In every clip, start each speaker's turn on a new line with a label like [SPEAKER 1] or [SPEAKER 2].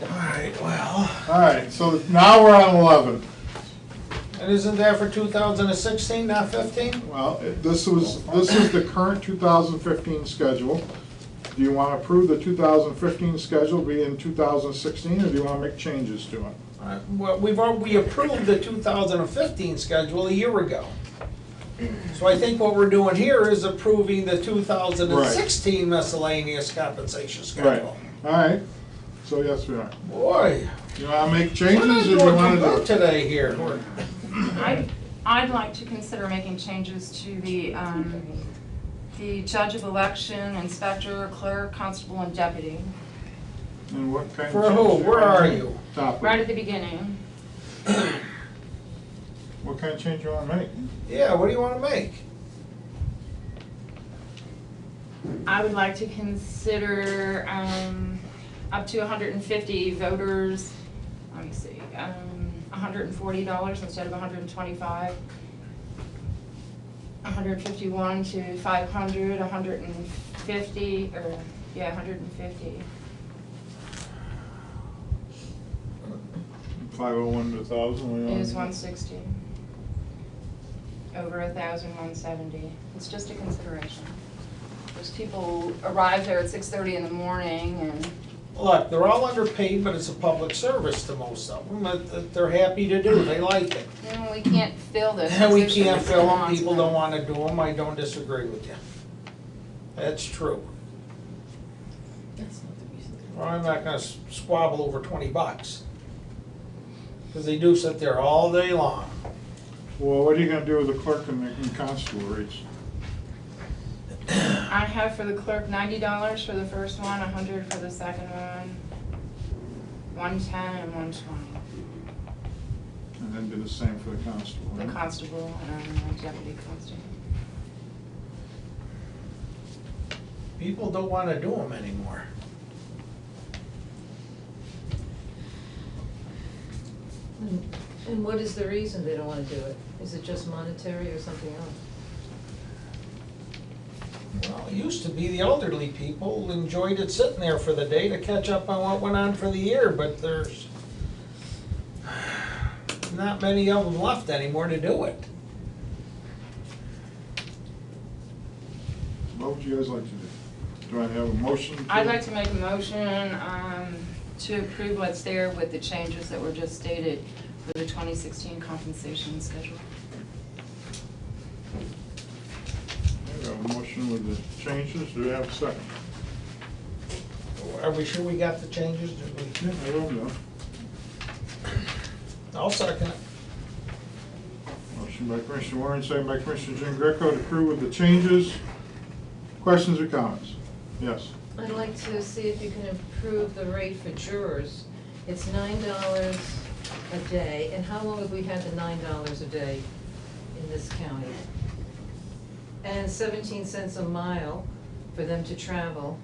[SPEAKER 1] right, well,
[SPEAKER 2] All right, so now we're on eleven.
[SPEAKER 1] and isn't that for two thousand and sixteen, not fifteen?
[SPEAKER 2] Well, it- this was, this is the current two thousand fifteen schedule. Do you want to approve the two thousand fifteen schedule be in two thousand sixteen, or do you want to make changes to it?
[SPEAKER 1] Uh, Well, we've, al- we approved the two thousand and fifteen schedule a year ago. So I think what we're doing here is approving the two thousand and sixteen miscellaneous compensation
[SPEAKER 2] Right,
[SPEAKER 1] schedule.
[SPEAKER 2] all right, so yes, we are.
[SPEAKER 1] Boy,
[SPEAKER 2] You want to make
[SPEAKER 1] we're not
[SPEAKER 2] changes, or do you
[SPEAKER 1] doing
[SPEAKER 2] want
[SPEAKER 1] too good
[SPEAKER 2] to do?
[SPEAKER 1] today here.
[SPEAKER 3] I'd, I'd like to consider making changes to the, um, the judge of election, inspector, clerk, constable, and deputy,
[SPEAKER 2] And what kind of
[SPEAKER 1] For who?
[SPEAKER 2] changes do you
[SPEAKER 1] Where
[SPEAKER 2] wanna
[SPEAKER 1] are
[SPEAKER 2] make?
[SPEAKER 1] you?
[SPEAKER 2] Top
[SPEAKER 3] right
[SPEAKER 2] it.
[SPEAKER 3] at the beginning.
[SPEAKER 2] What kind of change you want to make?
[SPEAKER 1] Yeah, what do you wanna make?
[SPEAKER 3] I would like to consider, um, up to hundred and fifty voters, let me see, um, hundred and forty dollars instead of hundred and twenty-five. hundred and fifty-one to five hundred, hundred and fifty, or, yeah, hundred and fifty.
[SPEAKER 2] Five oh one to thousand?
[SPEAKER 3] Is
[SPEAKER 1] Um,
[SPEAKER 3] one sixty. Over a thousand, one seventy. It's just a consideration. Those people arrive there at six thirty in the morning and,
[SPEAKER 1] Look, they're all underpaid, but it's a public service to most of them, that- that they're happy to do, they like it.
[SPEAKER 3] you know, we can't fill those
[SPEAKER 1] And we
[SPEAKER 3] positions.
[SPEAKER 1] can't fill them,
[SPEAKER 3] Lots of
[SPEAKER 1] people don't wanna do them, I don't disagree with you. That's true.
[SPEAKER 4] That's not the reason.
[SPEAKER 1] Well, I'm not gonna s- squabble over twenty bucks. Cause they do sit there all day long.
[SPEAKER 2] Well, what are you going to do with the clerk and the and constable rates?
[SPEAKER 3] I have for the clerk ninety dollars for the first one, a hundred for the second one, one ten and one twenty.
[SPEAKER 2] And then do the same for the constable,
[SPEAKER 3] The
[SPEAKER 2] right?
[SPEAKER 3] constable and um, deputy constable.
[SPEAKER 1] People don't wanna do them anymore.
[SPEAKER 4] And- Hmm. And what is the reason they don't wanna do it? Is it just monetary or something else?
[SPEAKER 1] Well, it used to be the elderly people enjoyed it sitting there for the day to catch up on what went on for the year, but there's not many of them left anymore to do it.
[SPEAKER 2] What would you guys like to do? Do I have a motion? to-
[SPEAKER 3] I'd like to make a motion um, to approve what's there with the changes that were just stated for the 2016 compensation schedule.
[SPEAKER 2] I have a motion with the changes, do we have a second?
[SPEAKER 1] Are we sure we got the changes? Did
[SPEAKER 2] Yeah, I will do.
[SPEAKER 1] we- I'll second it.
[SPEAKER 2] Motion by Commissioner Warren, second by Commissioner Jean Greco to approve with the changes. Questions or comments? Yes.
[SPEAKER 4] I'd like to see if you can improve the rate for jurors. It's nine dollars a day, and how long have we had the nine dollars a day in this county? And seventeen cents a mile for them to travel.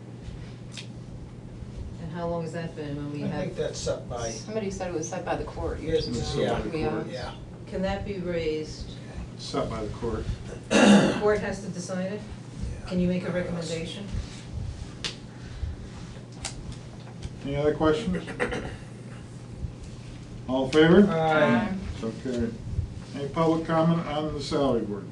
[SPEAKER 4] And how long has that been when we
[SPEAKER 1] I think
[SPEAKER 4] have,
[SPEAKER 1] that's set by,
[SPEAKER 3] Somebody said it was set by the court years
[SPEAKER 1] Yes,
[SPEAKER 3] ago.
[SPEAKER 1] yeah.
[SPEAKER 3] We are-
[SPEAKER 1] yeah.
[SPEAKER 4] can that be raised?
[SPEAKER 2] Set by the court.
[SPEAKER 4] The court has to decide it? Can you make a recommendation?
[SPEAKER 2] Any other questions? All in favor?
[SPEAKER 1] Aye.
[SPEAKER 3] Um,
[SPEAKER 2] So carried. Any public comment on the salary board?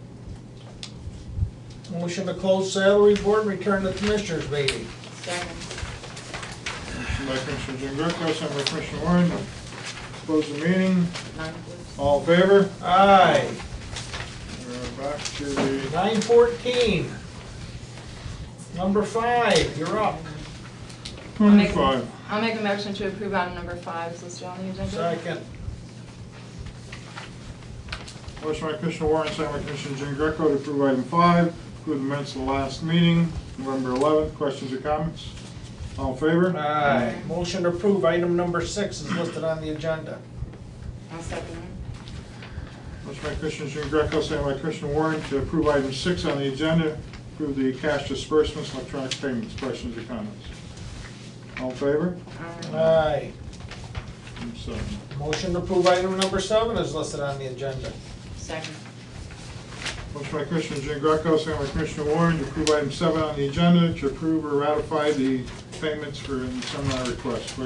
[SPEAKER 1] Motion to close salary board, return to commissioners meeting.
[SPEAKER 3] Second.
[SPEAKER 2] Motion by Commissioner Jean Greco, second by Commissioner Warren to close the meeting.
[SPEAKER 3] Nine, please.
[SPEAKER 2] All in favor?
[SPEAKER 1] Aye.
[SPEAKER 2] We're back to the,
[SPEAKER 1] Nine fourteen. Number five, you're up.
[SPEAKER 3] I'll make-
[SPEAKER 2] Five.
[SPEAKER 3] I'll make a motion to approve item number five is listed on the agenda.
[SPEAKER 1] Second.
[SPEAKER 2] motion by Commissioner Warren, second by Commissioner Jean Greco to approve item five, include the minutes of the last meeting, November 11th. Questions or comments? All in favor?
[SPEAKER 1] Aye. Motion to approve item number six is listed on the agenda.
[SPEAKER 3] I'll second it.
[SPEAKER 2] Motion by Commissioner Jean Greco, second by Commissioner Warren to approve item six on the agenda, approve the cash disbursements, electronic payments. Questions or comments? All in favor?
[SPEAKER 3] Um,
[SPEAKER 1] Aye.
[SPEAKER 2] Item seven.
[SPEAKER 1] Motion to approve item number seven is listed on the agenda.
[SPEAKER 3] Um, Second.
[SPEAKER 2] Motion by Commissioner Jean Greco, second by Commissioner Warren to approve item seven on the agenda, to approve or ratify the payments for seminar requests.